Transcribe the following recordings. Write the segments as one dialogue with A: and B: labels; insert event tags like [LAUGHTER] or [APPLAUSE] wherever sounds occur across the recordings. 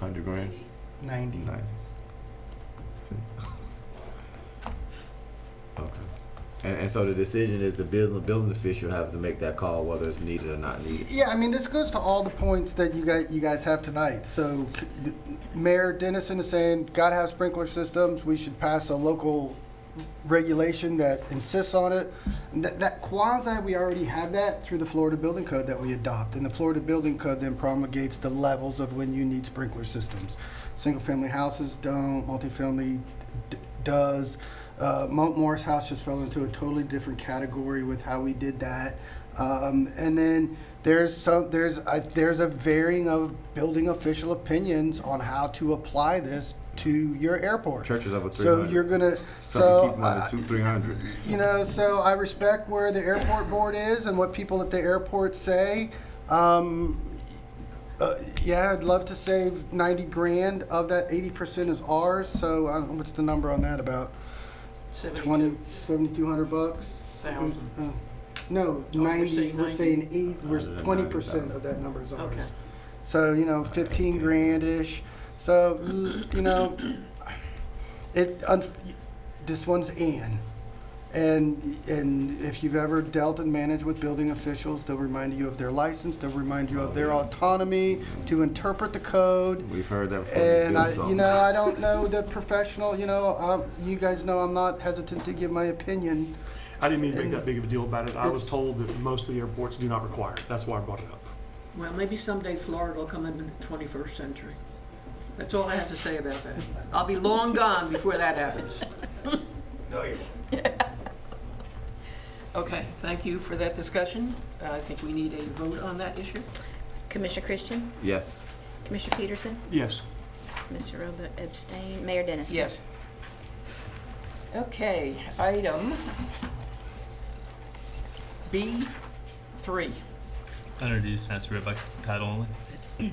A: Hundred grand?
B: ninety.
A: Ninety. See? Okay. And, and so the decision is the building, building official has to make that call whether it's needed or not needed.
B: Yeah, I mean, this goes to all the points that you guys, you guys have tonight. So c- Mayor Dennison is saying, gotta have sprinkler systems, we should pass a local regulation that insists on it. That, that quasi, we already have that through the Florida Building Code that we adopt. And the Florida Building Code then promulgates the levels of when you need sprinkler systems. Single-family houses don't, multifamily d- does. Uh, Mount Morris House just fell into a totally different category with how we did that. Um, and then there's some there's a, there's a varying of building official opinions on how to apply this to your airport.
A: Church is over three
B: So
A: hundred.
B: you're gonna
A: Something
B: so
A: keep them under
B: I-
A: two, three hundred.
B: you know, so I respect where the airport board is and what people at the airport say. Um, uh, yeah, I'd love to save 90 grand. Of that, 80% is ours. So I don't know, what's the number on that about? 20, 7,200 bucks?
C: Thousand.
B: Uh, no,
C: Oh, we're
B: 90,
C: saying
B: we're
C: 90.
B: saying eight, we're
A: Hundred and
B: 20%
A: ninety
B: of that number is ours.
C: Okay.
B: So, you know, 15 grand-ish. So, mm, you know, it, un- this one's Ann. And, and if you've ever dealt and managed with building officials, they'll remind you of their license, they'll remind you of their autonomy to interpret the code.
A: We've heard that before. Just
B: And
A: build
B: I, you
A: something.
B: know, I don't know the professional, you know, um, you guys know I'm not hesitant to give my opinion.
D: I didn't mean to make that big of a deal about it. I was
B: It's-
D: told that most of the airports do not require it. That's why I brought it up.
C: Mm-hmm. Well, maybe someday Florida will come into the twenty-first century. That's all I have to say about that. I'll be long gone before that happens. [LAUGHS] Okay, thank you for that discussion. Uh, I think we need a vote on that issue.
E: Commissioner Christian,
A: Yes.
E: Commissioner Peterson,
D: Yes.
E: Mr. Roebuck abstain, Mayor Dennis.
C: Yes. Okay, item B three.
F: Introduced and that's read by title only.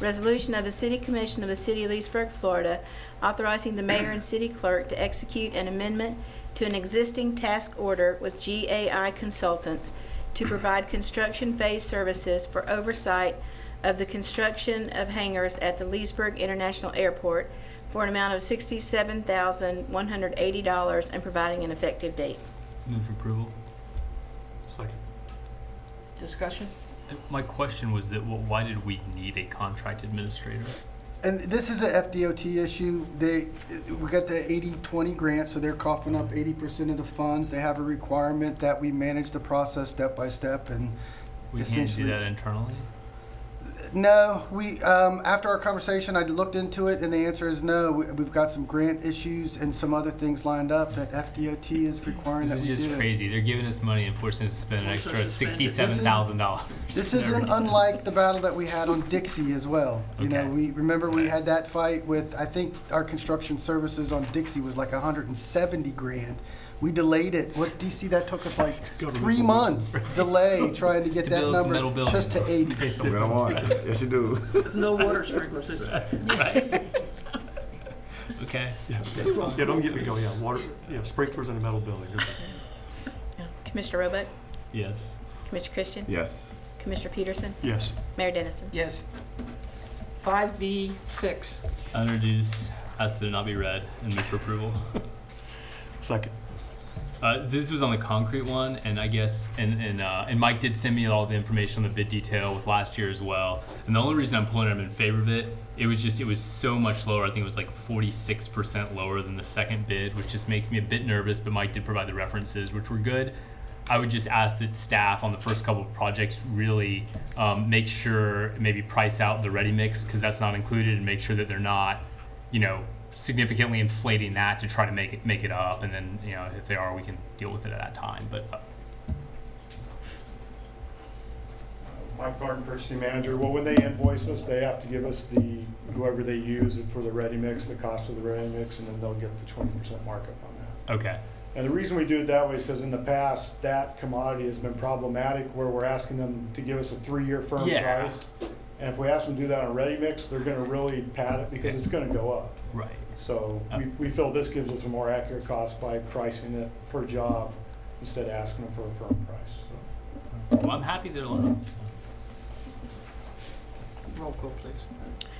E: Resolution of the City Commission of the City of Leesburg, Florida, authorizing the mayor and city clerk to execute an amendment to an existing task order with GAI Consultants to provide construction phase services for oversight of the construction of hangars at the Leesburg International Airport for an amount of sixty-seven thousand, one hundred eighty dollars and providing an effective date.
F: Move approval.
D: Second.
C: Discussion?
F: Uh, My question was that wh- why did we need a contract administrator?
B: And this is a FDOT issue. They, we got the 80-20 grant, so they're coughing up 80% of the funds. They have a requirement that we manage the process step by step and
F: We can't do
B: Essentially-
F: that internally.
B: no, we, um, after our conversation, I looked into it and the answer is no. We, we've got some grant issues and some other things lined up that FDOT is requiring
F: This
B: that
F: is
B: we do.
F: just crazy. They're giving us money and forcing us to spend an
C: Force us
F: extra
C: to spend it. This
F: sixty-seven
B: is-
F: thousand dollars.
B: This isn't unlike the battle that we had on Dixie as well. You know,
F: Okay.
B: we, remember we had that fight with, I think our construction services on Dixie was like hundred and seventy grand. We delayed it. What, do you see that took us like three
D: Governmental.
B: months delay trying to get
F: [LAUGHS] To
B: that
F: build some metal
B: number
F: buildings.
B: just to eighty.
F: Based
A: We
F: on
A: don't want it. Yes, you do.
C: With no water sprinkler system.
F: [LAUGHS] Okay.
D: Yeah. Yeah, don't get me going. Yeah, water, yeah, sprinklers in a metal building.
E: Commissioner Roebuck,
F: Yes.
E: Commissioner Christian,
A: [LAUGHS] Yes.
E: Commissioner Peterson,
D: Yes.
E: Mayor Dennison.
C: Yes. Five B six.
F: Introduced, asked that it not be read, and move for approval.
D: Second.
F: Uh, this was on the concrete one, and I guess, and and, uh, and Mike did send me all the information on the bid detail with last year as well. And the only reason I'm pulling it, I'm in favor of it. It was just, it was so much lower. I think it was like 46% lower than the second bid, which just makes me a bit nervous. But Mike did provide the references, which were good. I would just ask that staff on the first couple of projects really um, make sure, maybe price out the ready mix because that's not included, and make sure that they're not, you know, significantly inflating that to try to make it make it up. And then you know, if they are, we can deal with it at that time. But uh,
G: Mike Barton, purchasing manager. Well, when they invoice us, they have to give us the, whoever they use for the ready mix, the cost of the ready mix, and then they'll get the twenty percent markup on that.
F: okay,
G: And the reason we do it that way is because in the past, that commodity has been problematic where we're asking them to give us a three-year firm
F: Yeah.
G: price. And if we ask them to do that on ready mix, they're gonna really pad it because it's gonna go up.
F: right.
G: So we, we feel this gives us a more accurate cost by pricing it per job instead of asking them for a firm price. So
F: Well, I'm happy they're low. so.
C: Roll call, please.